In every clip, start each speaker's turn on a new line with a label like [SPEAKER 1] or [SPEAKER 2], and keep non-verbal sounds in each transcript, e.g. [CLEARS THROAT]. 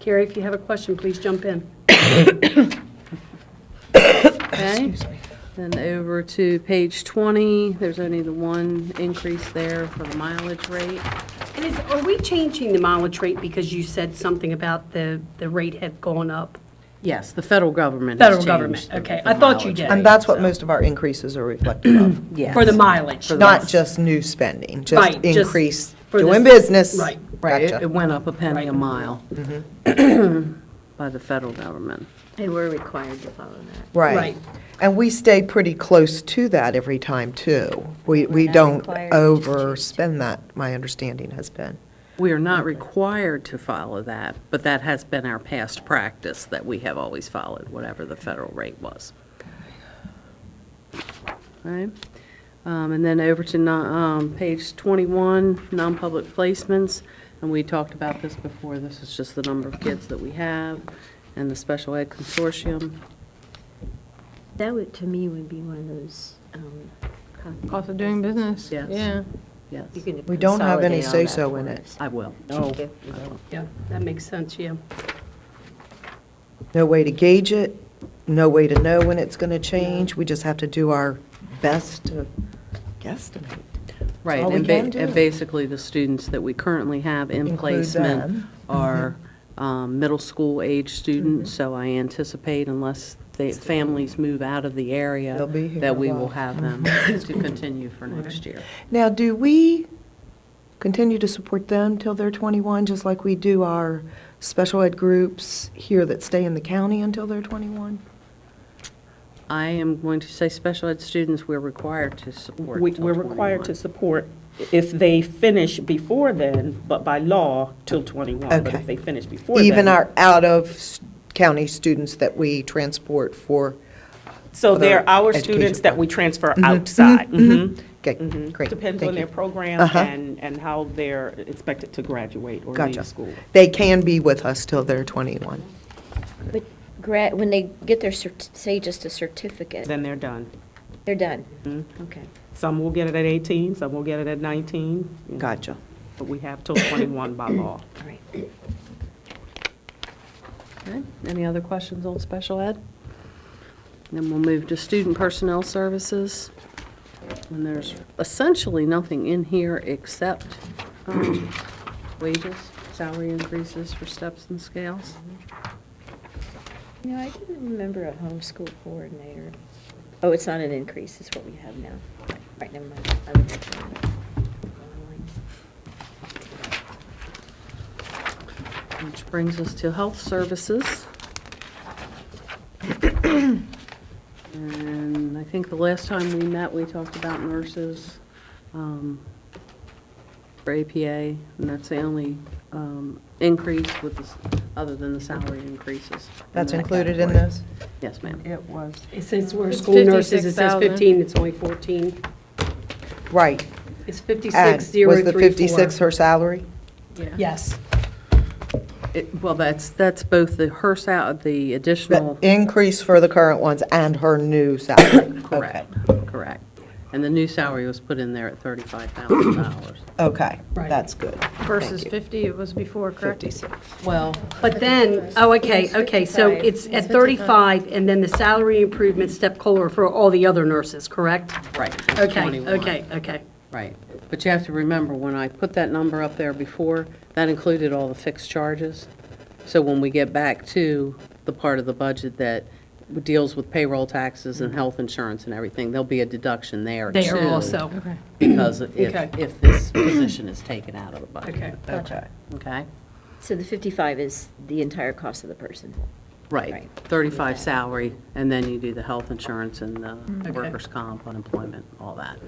[SPEAKER 1] Carrie, if you have a question, please jump in. Okay, then over to page 20, there's only the one increase there for the mileage rate. And is, are we changing the mileage rate because you said something about the, the rate had gone up?
[SPEAKER 2] Yes, the federal government has
[SPEAKER 1] Federal
[SPEAKER 2] changed.
[SPEAKER 1] government,
[SPEAKER 2] the-
[SPEAKER 1] okay,
[SPEAKER 2] the
[SPEAKER 1] I thought you
[SPEAKER 2] mileage
[SPEAKER 1] did.
[SPEAKER 2] rate,
[SPEAKER 3] And that's what
[SPEAKER 2] so-
[SPEAKER 3] most of our increases are reflective
[SPEAKER 1] [CLEARS THROAT]
[SPEAKER 3] of,
[SPEAKER 2] Yes.
[SPEAKER 1] For the mileage?
[SPEAKER 3] not just new spending, just
[SPEAKER 1] Right, just
[SPEAKER 3] increase
[SPEAKER 1] for
[SPEAKER 3] doing
[SPEAKER 1] this-
[SPEAKER 3] business.
[SPEAKER 1] right,
[SPEAKER 2] Right, it-
[SPEAKER 3] Gotcha.
[SPEAKER 2] it went up a penny a mile [CLEARS THROAT] by the federal government.
[SPEAKER 4] And we're required to follow that.
[SPEAKER 1] Right.
[SPEAKER 3] Right. And we stay pretty close to that every time, too. We, we
[SPEAKER 4] not
[SPEAKER 3] don't
[SPEAKER 4] required, we just
[SPEAKER 3] overspend that, my understanding has been.
[SPEAKER 2] We are not required to follow that, but that has been our past practice, that we have always followed whatever the federal rate was. Right? Um, And then over to non- um, page 21, non-public placements, and we talked about this before, this is just the number of kids that we have and the special ed consortium.
[SPEAKER 4] That would, to me, would be one of those, um.
[SPEAKER 5] Cost of doing business?
[SPEAKER 2] Yes.
[SPEAKER 5] Yeah.
[SPEAKER 2] Yes,
[SPEAKER 3] We don't have any say-so in it.
[SPEAKER 2] I will.
[SPEAKER 1] Yeah, that makes sense, yeah.
[SPEAKER 3] No way to gauge it, no way to know when it's going to change. We just have to do our best to guesstimate.
[SPEAKER 2] Right,
[SPEAKER 3] all we
[SPEAKER 2] and ba-
[SPEAKER 3] can do.
[SPEAKER 2] and basically, the students that we currently have in
[SPEAKER 3] Include
[SPEAKER 2] placement
[SPEAKER 3] them. Mm-hmm.
[SPEAKER 2] are um, middle school age students, so I anticipate unless the families move out of the area,
[SPEAKER 3] They'll be here
[SPEAKER 2] that we
[SPEAKER 3] a Mm-hmm.
[SPEAKER 2] will
[SPEAKER 3] while.
[SPEAKER 2] have them
[SPEAKER 3] [LAUGHS]
[SPEAKER 2] to continue for next year.
[SPEAKER 3] Now, do we continue to support them till they're 21, just like we do our special ed groups here that stay in the county until they're 21?
[SPEAKER 2] I am going to say special ed students, we're required to support
[SPEAKER 6] We-
[SPEAKER 2] till
[SPEAKER 6] We're
[SPEAKER 2] 21.
[SPEAKER 6] required to support if they finish before then, but by law, till 21. But
[SPEAKER 3] Okay.
[SPEAKER 6] if they finish before then.
[SPEAKER 3] Even our out-of-county students that we transport for,
[SPEAKER 6] So they're
[SPEAKER 3] other
[SPEAKER 6] our
[SPEAKER 3] education
[SPEAKER 6] students that we transfer outside. Mhm.
[SPEAKER 3] okay, Mm-hmm. great.
[SPEAKER 6] Depends
[SPEAKER 3] thank
[SPEAKER 6] on
[SPEAKER 3] you.
[SPEAKER 6] their program
[SPEAKER 3] Uh-huh.
[SPEAKER 6] and, and how they're expected to graduate or
[SPEAKER 3] Gotcha.
[SPEAKER 6] leave school.
[SPEAKER 3] They can be with us till they're 21.
[SPEAKER 4] But gra, when they get their, cert- say just a certificate,
[SPEAKER 6] Then they're done.
[SPEAKER 4] they're done. Okay.
[SPEAKER 6] Some will get it at 18, some will get it at 19. you know,
[SPEAKER 3] Gotcha.
[SPEAKER 6] But we have till 21 by law.
[SPEAKER 4] All right.
[SPEAKER 2] Okay. Any other questions on special ed? Then we'll move to student personnel services. And there's essentially nothing in here except um, wages, salary increases for steps and scales.
[SPEAKER 4] You know, I didn't remember a homeschool coordinator. Oh, it's not an increase, it's what we have now. Right, never mind. I would look at it.
[SPEAKER 2] Which brings us to health services. And I think the last time we met, we talked about nurses um, for APA, and that's the only um, increase with, the s- other than the salary increases. in
[SPEAKER 3] That's
[SPEAKER 2] that
[SPEAKER 3] included in
[SPEAKER 2] category.
[SPEAKER 3] this?
[SPEAKER 2] Yes, ma'am.
[SPEAKER 3] It was.
[SPEAKER 1] Since we're
[SPEAKER 5] It's
[SPEAKER 1] school nurses, it says
[SPEAKER 5] 56,000.
[SPEAKER 1] 15, it's only 14.
[SPEAKER 3] Right.
[SPEAKER 1] It's
[SPEAKER 3] And
[SPEAKER 1] 56,034.
[SPEAKER 3] Was the 56 her salary?
[SPEAKER 1] Yes.
[SPEAKER 2] It- Well, that's, that's both the her sal, the
[SPEAKER 3] The
[SPEAKER 2] additional,
[SPEAKER 3] increase for the current ones and her new salary?
[SPEAKER 2] correct, correct. And the new salary was put in there at $35,000.
[SPEAKER 3] Okay,
[SPEAKER 1] Right.
[SPEAKER 3] Okay, that's good.
[SPEAKER 5] Versus
[SPEAKER 3] Thank you.
[SPEAKER 5] 50 it was before, correct?
[SPEAKER 2] Well,
[SPEAKER 1] But then, oh, okay, okay, so it's at 35, and then the salary improvement step COLA for all the other nurses, correct?
[SPEAKER 2] right. it's
[SPEAKER 1] Okay,
[SPEAKER 2] 21.
[SPEAKER 1] okay, okay.
[SPEAKER 2] Right. But you have to remember, when I put that number up there before, that included all the fixed charges. So when we get back to the part of the budget that deals with payroll taxes and health insurance and everything, there'll be a deduction there too.
[SPEAKER 1] Mm-hmm. They are also,
[SPEAKER 2] Because if,
[SPEAKER 1] Okay.
[SPEAKER 2] if this position is taken out of the budget.
[SPEAKER 1] okay.
[SPEAKER 3] Okay.
[SPEAKER 2] Okay?
[SPEAKER 4] So the 55 is the entire cost of the person.
[SPEAKER 2] Right.
[SPEAKER 4] Right.
[SPEAKER 2] 35 salary, and then you do the health insurance and the
[SPEAKER 1] Okay.
[SPEAKER 2] workers' comp, unemployment, all that.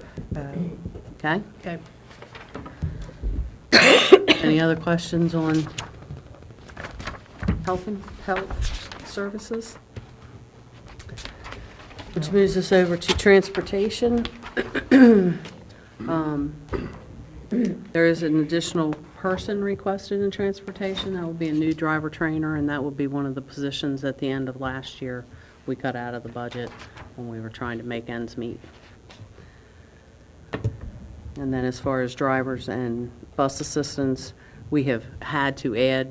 [SPEAKER 2] Okay?
[SPEAKER 1] Okay.
[SPEAKER 2] Any other questions on health and health services? Which moves us over to transportation. Um, There is an additional person requested in transportation. That will be a new driver trainer, and that will be one of the positions at the end of last year we cut out of the budget when we were trying to make ends meet. And then as far as drivers and bus assistants, we have had to add